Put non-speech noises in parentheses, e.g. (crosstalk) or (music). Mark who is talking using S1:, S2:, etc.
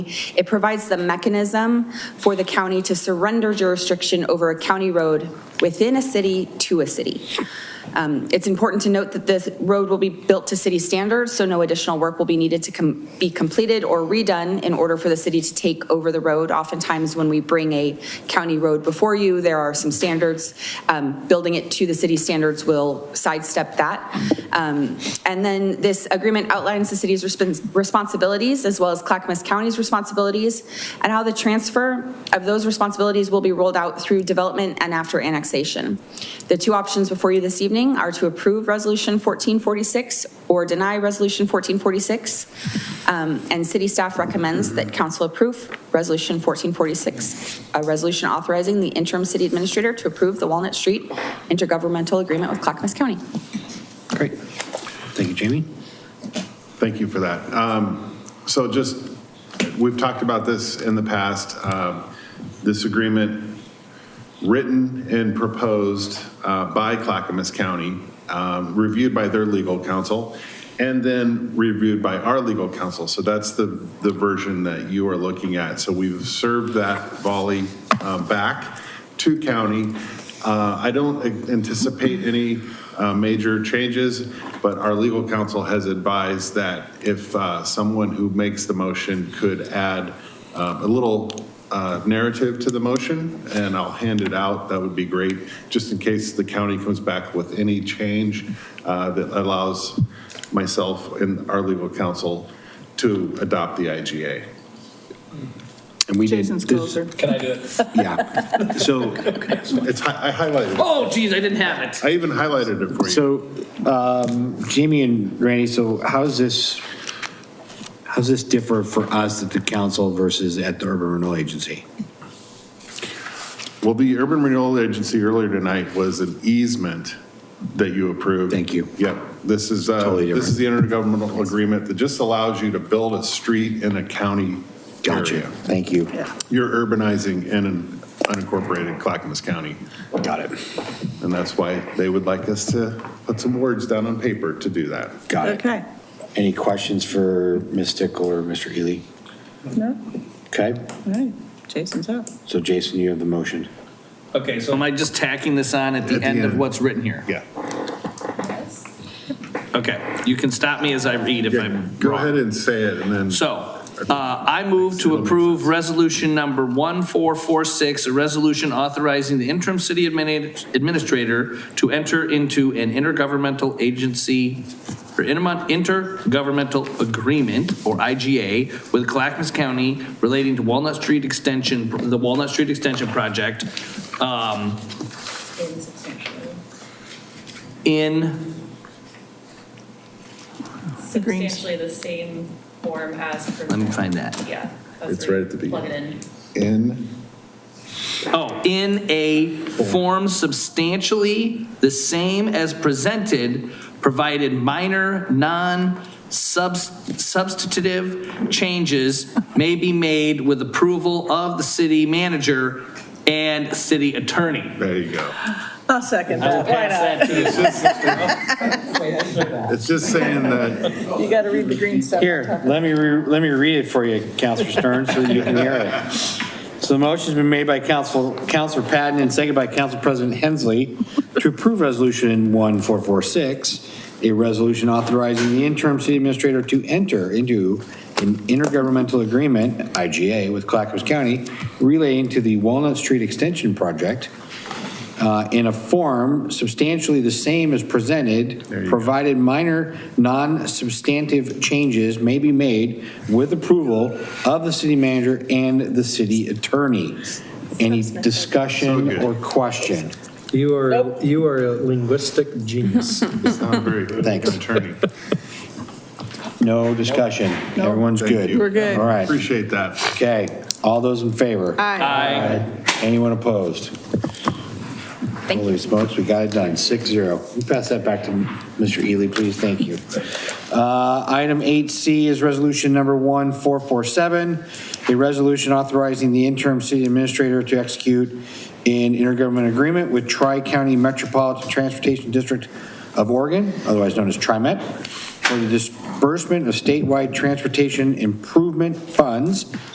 S1: It provides the mechanism for the county to surrender jurisdiction over a county road within a city to a city. Um, It's important to note that this road will be built to city standards, so no additional work will be needed to com- be completed or redone in order for the city to take over the road. Oftentimes, when we bring a county road before you, there are some standards. Um, Building it to the city standards will sidestep that. Um, And then this agreement outlines the city's respons- responsibilities as well as Clackamas County's responsibilities and how the transfer of those responsibilities will be rolled out through development and after annexation. The two options before you this evening are to approve Resolution 1446 or deny Resolution 1446. Um, And city staff recommends that council approve Resolution 1446, a resolution authorizing the interim city administrator to approve the Walnut Street intergovernmental agreement with Clackamas County.
S2: Great. Thank you, Jamie.
S3: Thank you for that. Um, So just, we've talked about this in the past. Um, This agreement, written and proposed uh, by Clackamas County, um, reviewed by their legal counsel, and then reviewed by our legal counsel. So that's the, the version that you are looking at. So we've served that volley uh, back to county. Uh, I don't anticipate any uh, major changes, but our legal counsel has advised that if uh, someone who makes the motion could add uh, a little uh, narrative to the motion, and I'll hand it out, that would be great, just in case the county comes back with any change uh, that allows myself and our legal counsel to adopt the IGA.
S2: And we did,
S4: Jason's closer.
S5: Can I do it?
S2: yeah. (laughs) So,
S3: It's, hi- I highlighted, it.
S5: (laughs) Oh, geez, I didn't have it.
S3: I even highlighted it for you.
S2: so um, Jamie and Randy, so how's this, how's this differ for us at the council versus at the urban renewal agency?
S3: Well, the Urban Renewal Agency earlier tonight was an easement that you approved.
S2: Thank you.
S3: Yep. This is, uh,
S2: Totally
S3: this is the intergovernmental agreement that just allows you to build a street in a county
S2: Gotcha.
S3: area.
S2: Thank you.
S3: You're urbanizing in an unincorporated Clackamas County,
S2: Got it.
S3: and that's why they would like us to put some words down on paper to do that.
S2: Got it.
S4: Okay.
S2: Any questions for Ms. Stickle or Mr. Healy?
S4: No,
S2: Okay,
S4: all right. Jason's up.
S2: so Jason, you have the motion.
S5: Okay, so am I just tacking this on at
S3: At
S5: the
S3: the
S5: end of
S3: end.
S5: what's written here?
S3: Yeah.
S5: Okay, you can stop me as I read if I'm
S3: Go
S5: wrong.
S3: ahead and say it, and then.
S5: So, uh, I move to approve resolution number 1446, a resolution authorizing the interim city admini- administrator to enter into an intergovernmental agency, or intermon- intergovernmental agreement, or IGA, with Clackamas County relating to Walnut Street Extension, the Walnut Street Extension Project, um, in,
S4: Greens.
S6: substantially the same form as.
S5: let me find that.
S6: Yeah. that's
S3: It's
S6: where
S3: right
S6: you
S3: at the
S6: Plug it in.
S3: In,
S5: Oh, in a form substantially the same as presented, provided minor, non-substantive changes may be made with approval of the city manager and city attorney.
S3: there you go.
S4: I'll second that. Why not?
S3: It's just saying that,
S4: You got to read the green stuff.
S2: Here, let me, re- let me read it for you, Counselor Stern, so that you can hear it. So the motion's been made by Council, Counselor Patton and seconded by Council President Hensley to approve Resolution 1446, a resolution authorizing the interim city administrator to enter into an intergovernmental agreement, IGA, with Clackamas County relating to the Walnut Street Extension Project uh, in a form substantially the same as presented, provided minor, non-substantive changes may be made with approval of the city manager and the city attorney. Any discussion or question?
S7: You are, you are a linguistic genius.
S3: it's not very good
S2: Thanks.
S3: attorney.
S2: No discussion? Everyone's
S3: Thank
S2: good?
S3: you. We're
S4: good.
S2: All right.
S3: Appreciate that.
S2: Okay. All those in favor?
S4: Aye.
S5: Aye.
S2: Anyone opposed? Holy smokes, we got it done, six zero. We pass that back to Mr. Ely, please, thank you. Uh, Item 8C is Resolution Number 1447, a resolution authorizing the interim city administrator to execute an intergovernmental agreement with Tri-County Metropolitan Transportation District of Oregon, otherwise known as TriMet, for the disbursement of statewide transportation improvement funds